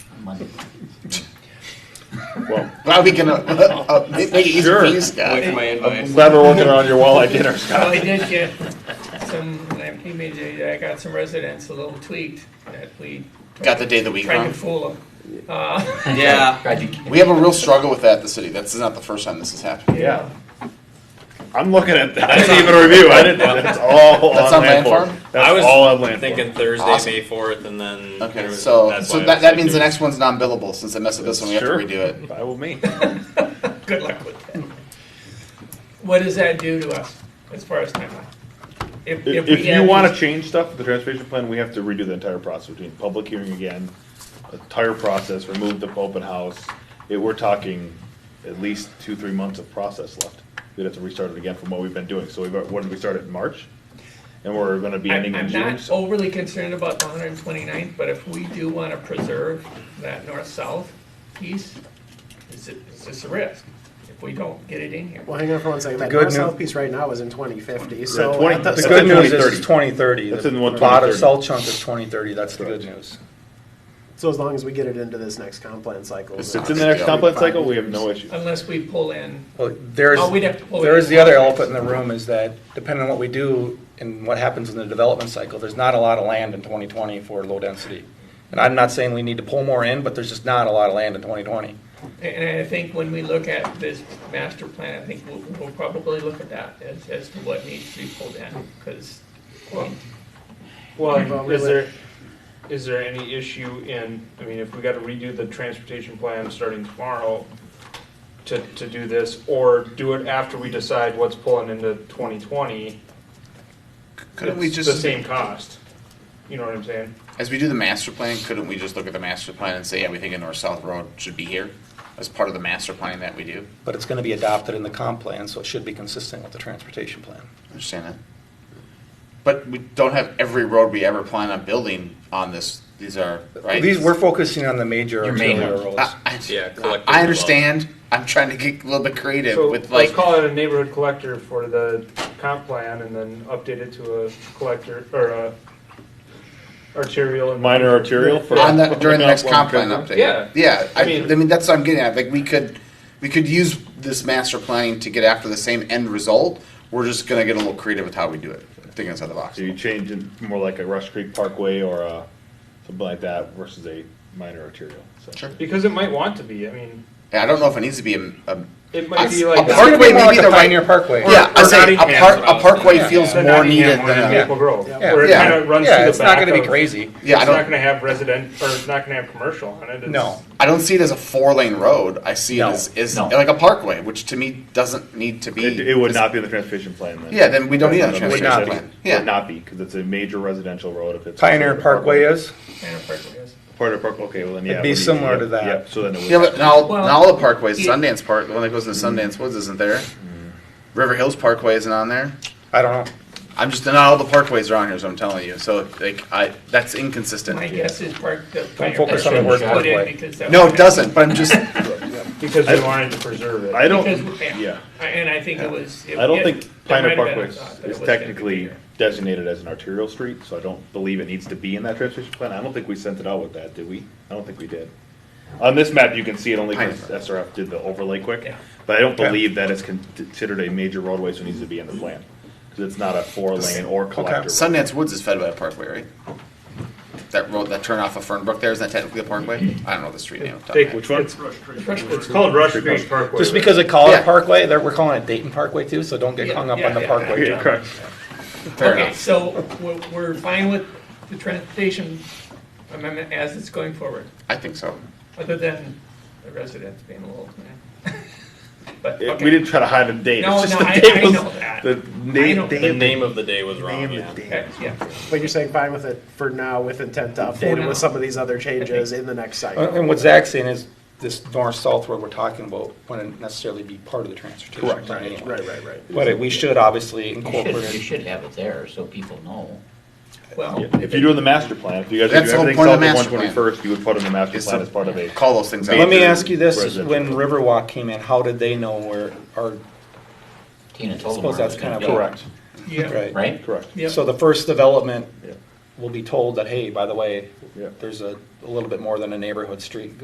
Monday. Well, Well, we can, uh, uh, make it easy Sure. for you, Scott. Wait for my I'm advice. glad we're working around your walleye dinner, Well, I Scott. Oh, did get some, he made, I got some residents a little tweaked that we Got the day of the week tried to wrong. fool them. Uh, Yeah, We have a real struggle with that at the city. That's not the first time this has happened. Yeah. I'm looking at that. I didn't even review. I didn't. That's all That's on on land land form. farm? I That's was all on land thinking form. Thursday, Awesome. May fourth, and then. there Okay, was- so, that's so why I that, was that means the thinking- next one's non-billable, since I messed with this one, we have to Sure. redo it. Fine with me. Good luck with that. What does that do to us as far as timeline? If, If, we if you have wanna this- change stuff, with the transportation plan, we have to redo the entire process, between public hearing again, entire process, remove the open house. It, we're talking at least two, three months of process left. We'd have to restart it again from what we've been doing, so we've, got- what did we start in March? And we're gonna be I'm, ending I'm in June, not so. overly concerned about the 129th, but if we do want to preserve that north-south piece, is it, is this a risk? If we don't get it in here? Well, hang on for one second. That good north south new- piece right now is in 2050, so. 20 at the- The That's good in news is 2030. it's twenty thirty. That's in The what, lot of 2030. salt chunk is twenty thirty, that's the good Correct. news. So as long as we get it into this next comp plan cycle. It's then it's in the next Yeah. comp plan cycle, we have no issue. Unless we pull in, Well, there's, Oh, we'd have to pull it there is in the other contracts. elephant in the room is that depending on what we do and what happens in the development cycle, there's not a lot of land in twenty twenty for low density. And I'm not saying we need to pull more in, but there's just not a lot of land in twenty twenty. and I think when we look at this master plan, I think we'll, we'll probably look at that as, as to what needs to be pulled in, because Well, Well, we is let- there, is there any issue in, I mean, if we gotta redo the transportation plan starting tomorrow to, to do this, or do it after we decide what's pulling into twenty twenty? Couldn't we The just, same cost, you know what I'm saying? as we do the master plan, couldn't we just look at the master plan and say, yeah, we think a north-south road should be here? As part of the master planning that we do? But it's gonna be adopted in the comp plan, so it should be consistent with the transportation plan. Understand that? But we don't have every road we ever plan on building on this, these are, right? These, we're focusing on the major Your main arterial ones. roads. I- I- Yeah, collective I understand, I'm trying to get a little bit creative So with let's like, call it a neighborhood collector for the comp plan and then update it to a collector, or a arterial and. Minor arterial for. on the, during the next comp plan Comp update. Yeah. Yeah, I, I I mean- mean, that's what I'm getting at, like, we could, we could use this master planning to get after the same end result, we're just gonna get a little creative with how we do it, thinking outside the box. So you change it more like a Rush Creek Parkway or uh, something like that versus a minor arterial. So. Sure. Because it might want to be, I mean, Yeah, I don't know if it needs to be a, a it might be A- like. a It's gonna be Parkway more may like be a the right- Pioneer Parkway. yeah. I Or say a Nottingham's park what I a was parkway thinking. feels The more Nottingham needed one than in a, Maple Grove, Yeah. where it Yeah. kind of runs Yeah, through it's the back not gonna be of- crazy. yeah. I it's not don't going to have resident or it's not going to have commercial on it. It's, No. I don't see it as a four lane road. I see No, it as, as no. like a parkway, which to me doesn't need to be. It, it would not be in the transportation plan then. Yeah, then we don't need a It transportation not be. plan. Would Yeah, not be because it's a major residential road. If it's Pioneer Parkway is, Tanner Park is. Pioneer Parkway. Okay, well then yeah. It'd be it would similar to yeah, that. Yeah, so then it would. yeah, but now Well, now all the parkways, it- Sundance Park, the one that goes into Sundance Woods, isn't there? River Hills Parkway isn't on there. I don't know. I'm just not all the parkways are on here, so I'm telling you. So like I, that's inconsistent. My guess is Park, the. focus on the word Put in pathway. because that- No, it doesn't. But I'm just because we wanted to preserve it. I don't. Because, yeah. And I think it was. it- I don't it- think there Pioneer might have been a Parkway thought that it is was gonna be technically there. designated as an arterial street, so I don't believe it needs to be in that transportation plan. I don't think we sent it out with that, did we? I don't think we did. On this map, you can see it only because SRF did the overlay quick, Yeah. but I don't believe that it's considered a major roadway, so it needs to be in the plan. Because it's not a four lane or collector. road. Sundance Woods is fed by a parkway, right? That road, that turn off of Fernbrook there, isn't that technically a parkway? I don't know the street name. off the top of my Take head. which one? It's, it's called Rush Creek Parkway. Just because they call Yeah. it Parkway, they're- we're calling it Dayton Parkway too, so don't get Yeah, hung up yeah, on the yeah. Parkway. Yeah, John. correct. Fair Okay, enough. so we're, we're fine with the transportation amendment as it's going forward, I think so. other than the residents being a little, eh. But, It- We okay, didn't try to hide a date. No, it's just no, the I- date I was- know that. The I name, know The date- name of the day was wrong, yeah. okay, yeah. But you're saying fine with it for now with intent to For update it now. with some of these other changes in the next Uh, cycle. And what Zach's saying is this north-south road we're talking about wouldn't necessarily be part of the transportation Correct. plan anyway. Right, right, right. But it- we should obviously You should, you incorporate it. should have it there so people know. Well, yeah, if you're doing the master plan, if you guys are That's doing the whole everything south of point of the one master plan. twenty-first, you would put in the master It's plan a- as part of a Call those things out. Let me ask you this, is Residential. when Riverwalk came in, how did they know where, or, Tina I told them. suppose where it that's was gonna kind of. be, Correct, yeah, Right. Right? correct. yeah. So the first development Yeah. will be told that, hey, by the way, Yeah. there's a, a little bit more than a neighborhood street